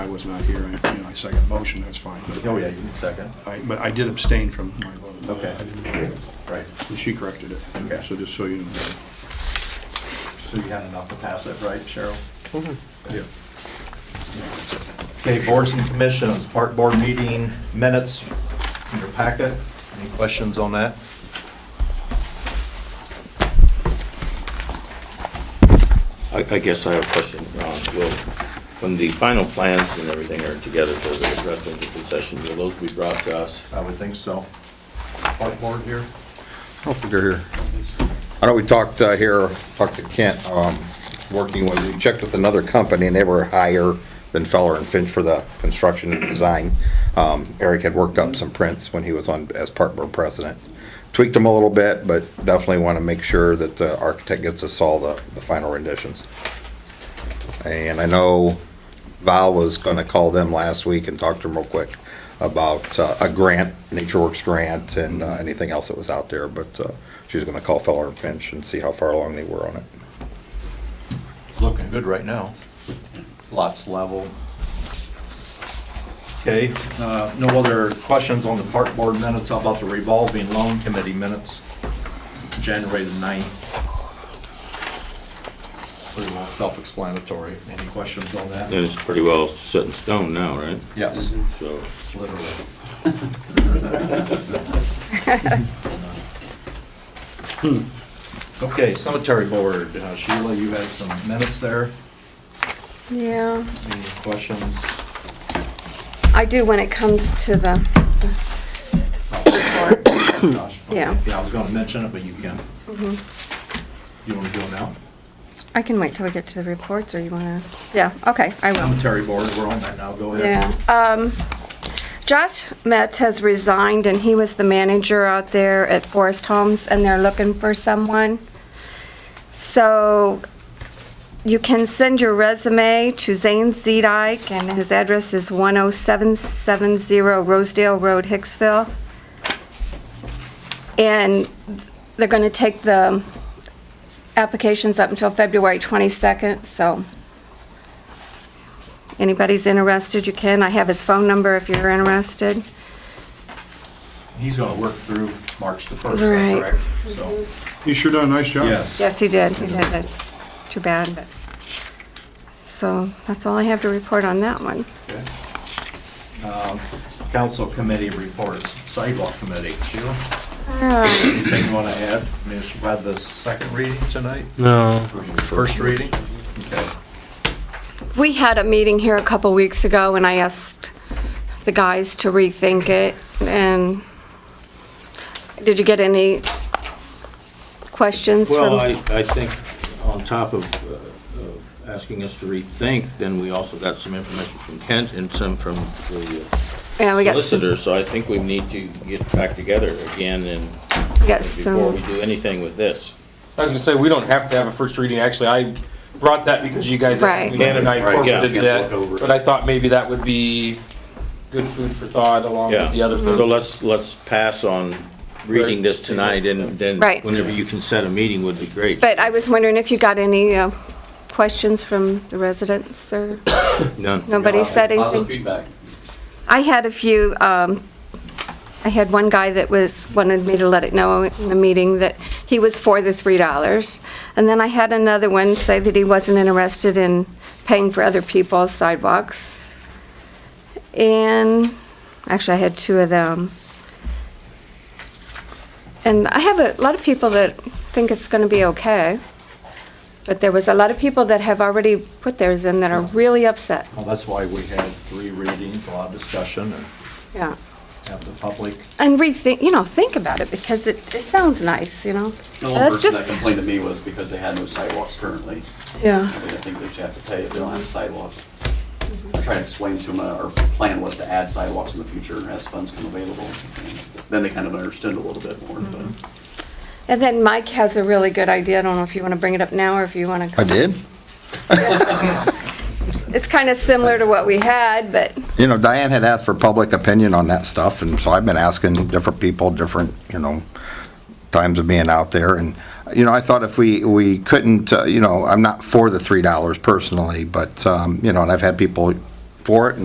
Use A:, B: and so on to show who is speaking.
A: I was not here, I, you know, I second motion, that's fine. but-
B: Oh, yeah, you need second,
A: I, but I did abstain from my vote.
B: Okay.
A: I didn't-
B: right.
A: And she corrected it,
B: Okay.
A: so just so you know.
B: So you had enough to pass it, right, Cheryl?
A: Yeah.
B: Okay, boards and commissions, park board meeting minutes in your packet. Any questions on that?
C: I, I guess I have a question, Ron. Will, when the final plans and everything are together for the rest of the concession, will those be brought to us?
B: I would think so. Park board here?
D: I don't think they're here. I know we talked uh, here, talked to Kent, um, working with, we checked with another company, and they were higher than Feller and Finch for the construction and design. Um, Eric had worked up some prints when he was on, as park board president. Tweaked them a little bit, but definitely want to make sure that the architect gets us all the, the final renditions. And I know Val was going to call them last week and talk to them real quick about uh, a grant, Nature Works grant, and uh, anything else that was out there, but uh, she was going to call Feller and Finch and see how far along they were on it.
B: It's looking good right now. Lots level. Okay, uh, no other questions on the park board minutes? How about the revolving loan committee minutes? January the 9th. Pretty well self-explanatory. Any questions on that?
C: Then it's pretty well set in stone now, right?
B: Yes,
C: So,
B: literally. Hmm. Okay, cemetery board. Uh, Sheila, you had some minutes there.
E: Yeah,
B: Any questions?
E: I do when it comes to the,
B: Gosh, okay.
E: Yeah.
B: Yeah, I was gonna mention it, but you can.
E: Mm-hmm.
B: You wanna do it now?
E: I can wait till we get to the reports, or you wanna, yeah, okay, I will.
B: Cemetery board, we're on that now, go ahead.
E: Yeah, um, Josh Metz has resigned, and he was the manager out there at Forest Homes, and they're looking for someone. So you can send your resume to Zane Zedike, and his address is 10770 Rosedale Road, Hicksville. And they're going to take the applications up until February 22nd, so anybody's interested, you can. I have his phone number if you're interested.
B: He's gonna work through March the first,
E: Right. Mm-hmm.
B: correct? So,
A: You sure done a nice job.
B: yes.
E: Yes, he did. He did. That's too bad. but- So that's all I have to report on that one.
B: Okay. Um, Council committee reports, sidewalk committee, Sheila, anything you wanna add? I mean, it's about the second reading tonight? No. First reading? Okay.
E: We had a meeting here a couple weeks ago, and I asked the guys to rethink it, and did you get any questions
C: well, I,
E: from?
C: I think on top of, uh, of asking us to rethink, then we also got some information from Kent and some from the uh,
E: Yeah, we got s-
C: solicitor, so I think we need to get back together again and
E: we got
C: before
E: some,
C: we do anything with this.
F: I was gonna say, we don't have to have a first reading, actually, I brought that because you guys asked me,
C: Right.
F: and I
C: Right, yeah.
F: incorporated that, but I thought maybe that would be good food for thought along
C: Yeah,
F: with the other
C: so
F: things.
C: let's, let's pass on reading this tonight, and then
E: Right.
C: whenever you can set a meeting would be great.
E: but I was wondering if you got any uh, questions from the residents, or
C: None.
E: nobody said anything?
F: feedback.
E: I had a few, um, I had one guy that was, wanted me to let it know in the meeting that he was for the three dollars. And then I had another one say that he wasn't interested in paying for other people's sidewalks. And, actually, I had two of them. And I have a lot of people that think it's gonna be okay. But there was a lot of people that have already put theirs in that are really upset,
B: Well, that's why we had three readings, a lot of discussion, and
E: yeah.
B: have the public
E: and rethink, you know, think about it because it, it sounds nice, you know.
G: The only
E: That's
G: person that
E: just,
G: complained to me was because they had no sidewalks currently.
E: yeah,
G: I mean, I think they should have to pay if they don't have a sidewalk. I tried to explain to them, uh, our plan was to add sidewalks in the future as funds come available. And Then they kind of understood a little bit more,
E: Mm-hmm.
G: but.
E: and then Mike has a really good idea, I don't know if you want to bring it up now or if you want
D: I
E: to.
D: did.
E: It's kind of similar to what we had, but,
D: You know, Diane had asked for public opinion on that stuff, and so I've been asking different people, different, you know, times of being out there, and, you know, I thought if we, we couldn't, uh, you know, I'm not for the three dollars personally, but, um, you know, and I've had people for it, and